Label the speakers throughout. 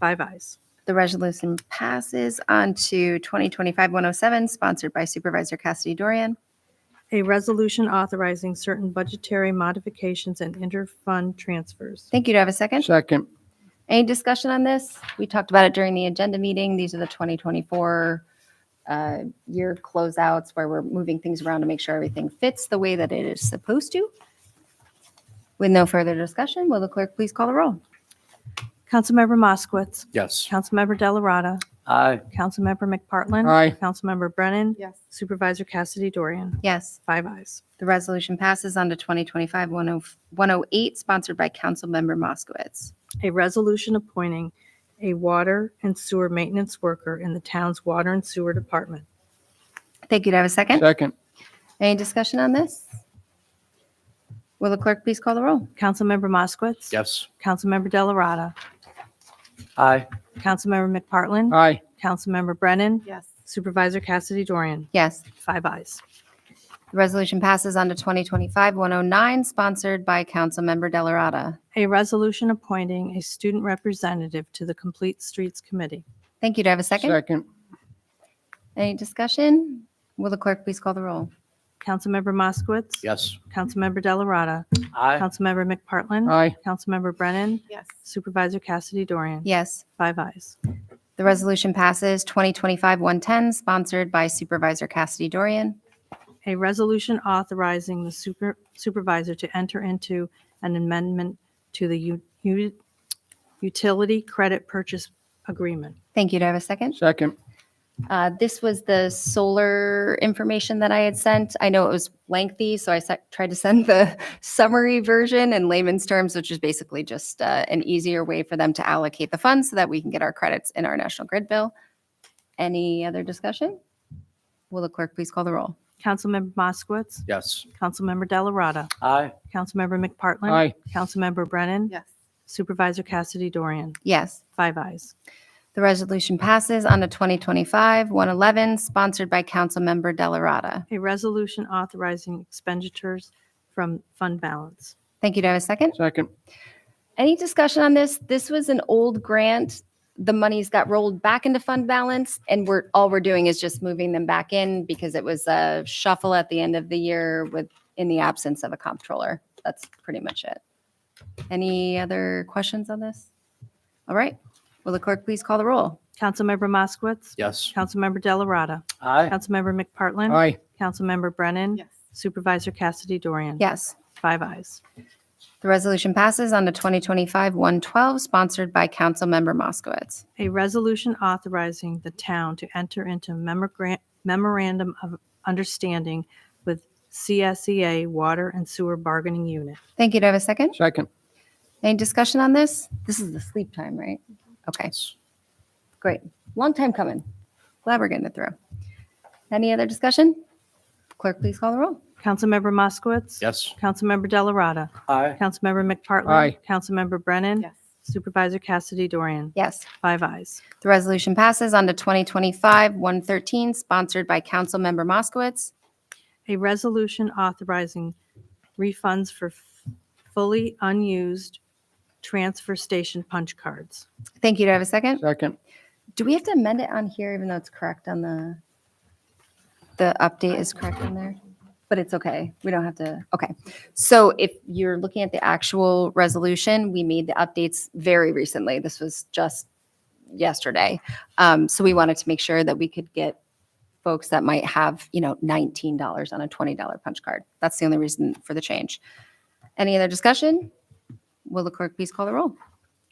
Speaker 1: Five ayes.
Speaker 2: The resolution passes on to 2025-107, sponsored by Supervisor Cassidy Dorian.
Speaker 1: A resolution authorizing certain budgetary modifications and interfund transfers.
Speaker 2: Thank you. Do I have a second?
Speaker 3: Second.
Speaker 2: Any discussion on this? We talked about it during the agenda meeting. These are the 2024 uh, year closeouts where we're moving things around to make sure everything fits the way that it is supposed to. With no further discussion, will the clerk please call the roll?
Speaker 1: Councilmember Moskowitz.
Speaker 3: Yes.
Speaker 1: Councilmember Delarada.
Speaker 3: Aye.
Speaker 1: Councilmember McPartlin.
Speaker 3: Aye.
Speaker 1: Councilmember Brennan.
Speaker 4: Yes.
Speaker 1: Supervisor Cassidy Dorian.
Speaker 2: Yes.
Speaker 1: Five ayes.
Speaker 2: The resolution passes on to oh, 2025-108, sponsored by Councilmember Moskowitz.
Speaker 1: A resolution appointing a water and sewer maintenance worker in the town's water and sewer department.
Speaker 2: Thank you. Do I have a second?
Speaker 3: Second.
Speaker 2: Any discussion on this? Will the clerk please call the roll?
Speaker 1: Councilmember Moskowitz.
Speaker 3: Yes.
Speaker 1: Councilmember Delarada.
Speaker 3: Aye.
Speaker 1: Councilmember McPartlin.
Speaker 3: Aye.
Speaker 1: Councilmember Brennan.
Speaker 4: Yes.
Speaker 1: Supervisor Cassidy Dorian.
Speaker 2: Yes.
Speaker 1: Five ayes.
Speaker 2: The resolution passes on to 2025-109, sponsored by Councilmember Delarada.
Speaker 1: A resolution appointing a student representative to the Complete Streets Committee.
Speaker 2: Thank you. Do I have a second?
Speaker 3: Second.
Speaker 2: Any discussion? Will the clerk please call the roll?
Speaker 1: Councilmember Moskowitz.
Speaker 3: Yes.
Speaker 1: Councilmember Delarada.
Speaker 3: Aye.
Speaker 1: Councilmember McPartlin.
Speaker 3: Aye.
Speaker 1: Councilmember Brennan.
Speaker 4: Yes.
Speaker 1: Supervisor Cassidy Dorian.
Speaker 2: Yes.
Speaker 1: Five ayes.
Speaker 2: The resolution passes 2025-110, sponsored by Supervisor Cassidy Dorian.
Speaker 1: A resolution authorizing the super- supervisor to enter into an amendment to the u- u- utility credit purchase agreement.
Speaker 2: Thank you. Do I have a second?
Speaker 3: Second.
Speaker 2: Uh, This was the solar information that I had sent. I know it was lengthy, so I se- tried to send the summary version in layman's terms, which is basically just uh, an easier way for them to allocate the funds so that we can get our credits in our national grid bill. Any other discussion? Will the clerk please call the roll?
Speaker 1: Councilmember Moskowitz.
Speaker 3: Yes.
Speaker 1: Councilmember Delarada.
Speaker 3: Aye.
Speaker 1: Councilmember McPartlin.
Speaker 3: Aye.
Speaker 1: Councilmember Brennan.
Speaker 4: Yes.
Speaker 1: Supervisor Cassidy Dorian.
Speaker 2: Yes,
Speaker 1: Five ayes.
Speaker 2: the resolution passes on to 2025-111, sponsored by Councilmember Delarada.
Speaker 1: A resolution authorizing expenditures from fund balance.
Speaker 2: Thank you. Do I have a second?
Speaker 3: Second.
Speaker 2: Any discussion on this? This was an old grant. The monies got rolled back into fund balance and we're, all we're doing is just moving them back in because it was a shuffle at the end of the year with, in the absence of a comptroller. That's pretty much it. Any other questions on this? All right. Will the clerk please call the roll?
Speaker 1: Councilmember Moskowitz.
Speaker 3: Yes.
Speaker 1: Councilmember Delarada.
Speaker 3: Aye.
Speaker 1: Councilmember McPartlin.
Speaker 3: Aye.
Speaker 1: Councilmember Brennan.
Speaker 4: Yes.
Speaker 1: Supervisor Cassidy Dorian.
Speaker 2: Yes.
Speaker 1: Five ayes.
Speaker 2: The resolution passes on to 2025-112, sponsored by Councilmember Moskowitz.
Speaker 1: A resolution authorizing the town to enter into memorgra- memorandum of understanding with CSEA Water and Sewer Bargaining Unit.
Speaker 2: Thank you. Do I have a second?
Speaker 3: Second.
Speaker 2: Any discussion on this? This is the sleep time, right? Okay. Great. Long time coming. Glad we're getting it through. Any other discussion? Clerk, please call the roll.
Speaker 1: Councilmember Moskowitz.
Speaker 3: Yes.
Speaker 1: Councilmember Delarada.
Speaker 3: Aye.
Speaker 1: Councilmember McPartlin.
Speaker 3: Aye.
Speaker 1: Councilmember Brennan.
Speaker 4: Yes.
Speaker 1: Supervisor Cassidy Dorian.
Speaker 2: Yes.
Speaker 1: Five ayes.
Speaker 2: The resolution passes on to 2025-113, sponsored by Councilmember Moskowitz.
Speaker 1: A resolution authorizing refunds for f- fully unused transfer station punch cards.
Speaker 2: Thank you. Do I have a second?
Speaker 3: Second.
Speaker 2: Do we have to amend it on here even though it's correct on the, the update is correct on there? But it's okay. We don't have to, okay. So if you're looking at the actual resolution, we made the updates very recently. This was just yesterday. Um, so we wanted to make sure that we could get folks that might have, you know, $19 on a $20 punch card. That's the only reason for the change. Any other discussion? Will the clerk please call the roll?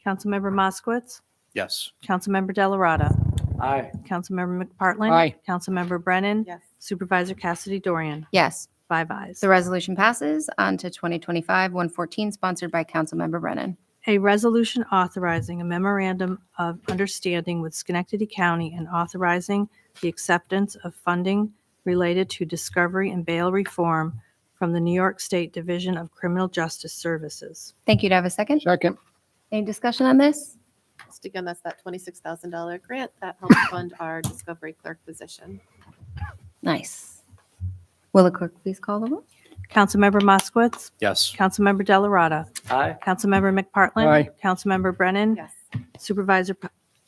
Speaker 1: Councilmember Moskowitz.
Speaker 3: Yes.
Speaker 1: Councilmember Delarada.
Speaker 3: Aye.
Speaker 1: Councilmember McPartlin.
Speaker 3: Aye.
Speaker 1: Councilmember Brennan.
Speaker 4: Yes.
Speaker 1: Supervisor Cassidy Dorian.
Speaker 2: Yes.
Speaker 1: Five ayes.
Speaker 2: The resolution passes on to 2025-114, sponsored by Councilmember Brennan.
Speaker 1: A resolution authorizing a memorandum of understanding with Schenectady County and authorizing the acceptance of funding related to discovery and bail reform from the New York State Division of Criminal Justice Services.
Speaker 2: Thank you. Do I have a second?
Speaker 3: Second.
Speaker 2: Any discussion on this?
Speaker 4: Just again, that's that twenty-six thousand dollar grant that helps fund our discovery clerk position.
Speaker 2: Nice. Will the clerk please call the roll?
Speaker 1: Councilmember Moskowitz.
Speaker 3: Yes.
Speaker 1: Councilmember Delarada.
Speaker 3: Aye.
Speaker 1: Councilmember McPartlin.
Speaker 3: Aye.
Speaker 1: Councilmember Brennan.
Speaker 4: Yes.
Speaker 1: Supervisor P-